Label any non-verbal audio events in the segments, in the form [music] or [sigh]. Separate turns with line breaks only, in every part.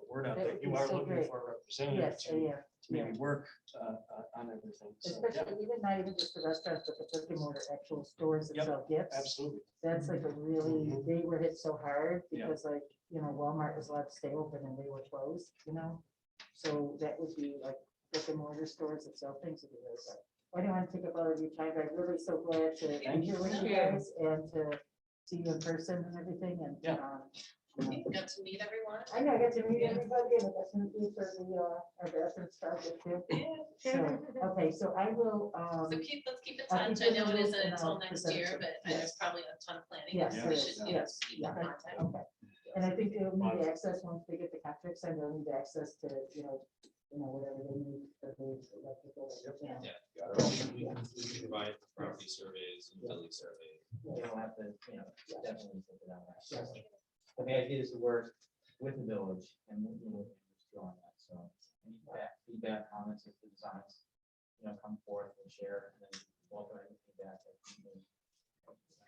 it
you
was
are
so
looking
great.
for a representative
Yes,
to,
and yeah,
to
yeah.
maybe work, uh, uh, on everything. So, yeah,
Especially even not even just the restaurants, but the brick and mortar actual stores that
Yep,
sell gifts.
Absolutely.
That's like a really,
Mhm.
they were hit so hard
Yeah.
because like, you know, Walmart was allowed to stay open and they were closed, you know? So that would be like brick and mortar stores that sell things would be really good. I don't want to take up all of your time, but I'm really so glad to
Thank
be here with you
Yeah.
guys and to see you in person and everything and.
Yeah.
um,
You Got to meet everyone.
I know, I got to meet everybody and that's gonna be for the, uh, our bathroom stuff too.
[laughs]
So, okay, so I will, um,
So keep, let's keep in
I'll keep
touch. I
you
know it
posted
isn't
and I'll
until next
present
year,
it.
but
Yes.
there's probably a ton of planning.
Yes,
We should, you know,
yes,
keep in
yeah.
contact.
okay. And I think they'll need access, once they get the contracts, and they'll need access to, you know, you know, whatever they need for the electrical. yeah,
Yeah, we can- we can we can provide property surveys and building surveys.
you
yeah.
don't have to, you know, definitely think about
Yeah.
that. But the idea is to work with the village and with the village on that, so any feedback, feedback, comments, if the designs, you know, come forth and share, and then welcome any feedback. that you may-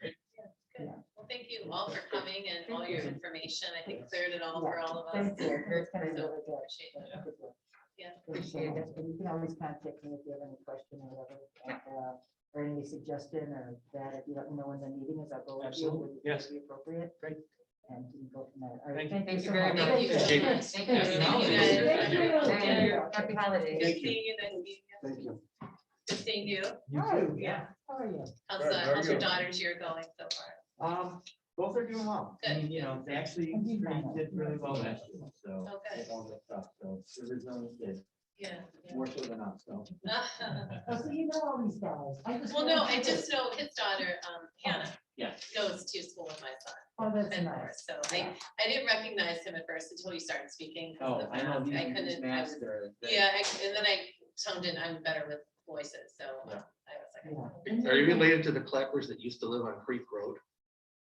Good.
Yeah.
Well, thank you all for coming and all your information. I think cleared it all for all of us.
Thank you, that's kind of
So
really good.
appreciate it.
That's a good one.
Yeah.
Thank you so much. And you can always contact me if you have any question or whatever, and, uh, or any suggestion or that, if you let me know when the meeting is, I'll go with you.
Absolutely.
would
Yes.
be appropriate.
Great.
And you can go from there. All right,
Thank you.
Thank you so
very
much.
Thank you.
Thank you.
Thank
you.
Thank you.
you.
Thank you.
Good
Happy holidays.
seeing you. nice meeting you.
Thank you.
Good seeing you.
Hi,
Yeah,
How are you?
How's,
Good,
uh,
how are
how's your
you?
daughter's year going so far?
um, both are doing well. I mean, you know, they actually pretty- did really well last year, so.
Oh, good.
with all this stuff, So the resilience did,
Yeah. [laughs]
more so than us, so.
yeah.
Oh, so you know all these guys. I just
Well, no, I
wanted to-
just know his daughter, um, Hannah,
Yes.
goes to school with my son.
Oh, that's
and
nice.
So I, I didn't recognize him at first until you started speaking. 'cause
Oh,
of the
I know,
mask. I
these- these
couldn't, I was,
masks are. they-
yeah, I- and then I toned in, I'm better with voices, so uh,
Yeah.
I was like.
Yeah.
Are you related to the clappers that used to live on Creek Road?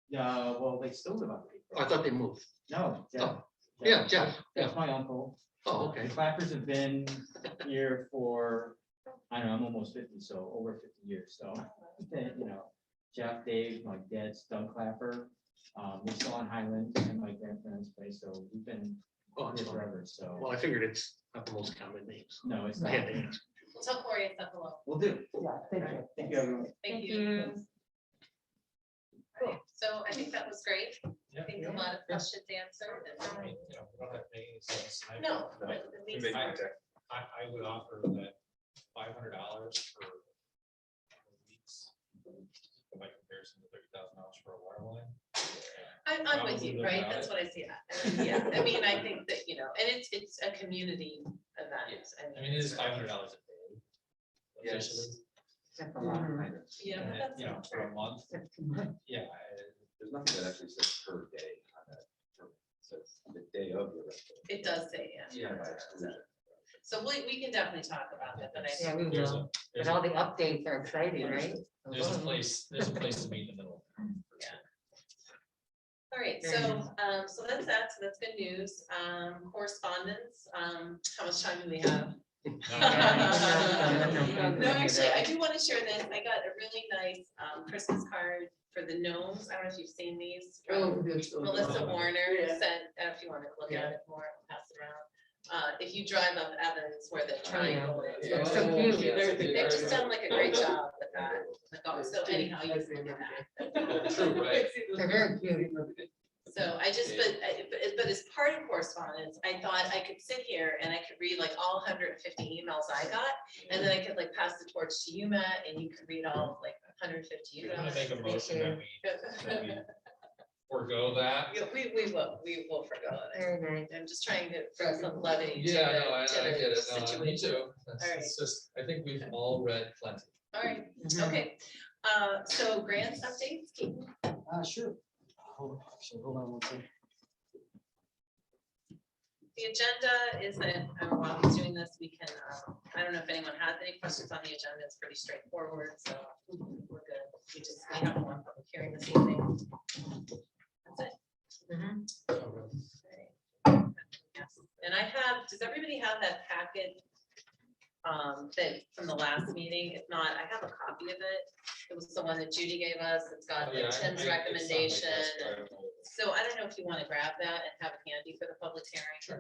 Yeah, well, they still live on. Creek
I
Road.
thought they moved.
No. Jeff-
Oh, Yeah, Jeff, yeah.
That's my uncle.
Oh, okay.
The Clappers have been here for, I don't know, I'm almost fifty, so over fifty years, so, they- you know, Jeff, Dave, my dad's Doug Clapper, um, we're still on Highland and my grandparents' place, so we've been
Oh,
here
it's all right.
forever, so,
Well, I figured it's not the most common names.
no, it's
I
not,
had to ask.
Well, tell Corey it's up hello.
we'll do.
Yeah, thank you.
Thank you, everyone.
Thank
Thank
you. Alright, So I think that was great. I
Yeah.
think a lot of questions answered.
I
and-
mean, you know, we don't have any sense. I-
No,
I,
but at least.
I would offer that five hundred dollars for weeks. By comparison to thirty thousand dollars for a water line.
I'm, I'm with you,
Probably
right?
about
That's
it.
what I see.
[laughs]
I- Yeah, I mean, I think that, you know, and it's, it's a community event.
I mean, it is five hundred dollars a day.
Yes.
officially,
That's a lot.
Mhm.
Yeah,
and
but
it-
that's
You know,
not
for a month,
That's too much.
yeah, I-
There's nothing that actually says per day on that. permit. It says the day of your rental.
It does say, yeah.
by exclusion.
So we, we can definitely talk about that, but I
Yeah,
think,
we
there's
will.
a, there's
But all
a,
the updates are exciting, right?
there's a place, there's a place to meet in the middle.
all right,
Very
so, um, so that's that, so that's good news. Um, correspondence, um, how much time do we have?
No, no, no, no.
[laughs] No, actually, I do want to share this. I got a really nice, um, Christmas card for the gnomes. I don't know if you've seen these. from-
Oh.
Melissa Warner sent, uh, if you want to look at it more, I'll pass it around. Uh, if you drive up Evans where the triangle is,
It's so
they're-
cute.
they've just done like a great job with that. Like, oh, So anyhow, you can look at that. [laughs]
True, right.
They're very cute.
So I just, but, I- but, but as part of correspondence, I thought I could sit here and I could read like all hundred and fifty emails I got. And then I could like pass the torch to you, Matt, and you could read all like hundred and fifty
You're gonna make a motion that we, that we
emails.
forego that.
[laughs] Yeah, We, we will, we will forego it. I
Very nice.
I'm just trying to bring some levity to
Yeah, no, I,
the,
I get
to the
it, no, me
situation.
too, That's-
Alright.
it's just, I think we've all read plenty.
All right, okay, uh, so grants updates, Keaton?
Uh, sure. Hold, actually, hold on one second.
the agenda is that, uh, while he's doing this, we can, um, I don't know if anyone has any questions on the agenda, it's pretty straightforward, so we're good. We just, we have one public hearing this evening. That's it. Alright. Yes. And I have, does everybody have that packet? Um, that, from the last meeting, if not, I have a copy of it, it was the one that Judy gave us, it's got
Yeah, I- I-
like
it's on my
Tim's
desk,
recommendation.
but I don't know.
So I don't know if you want to grab that and have it handy for the public hearing.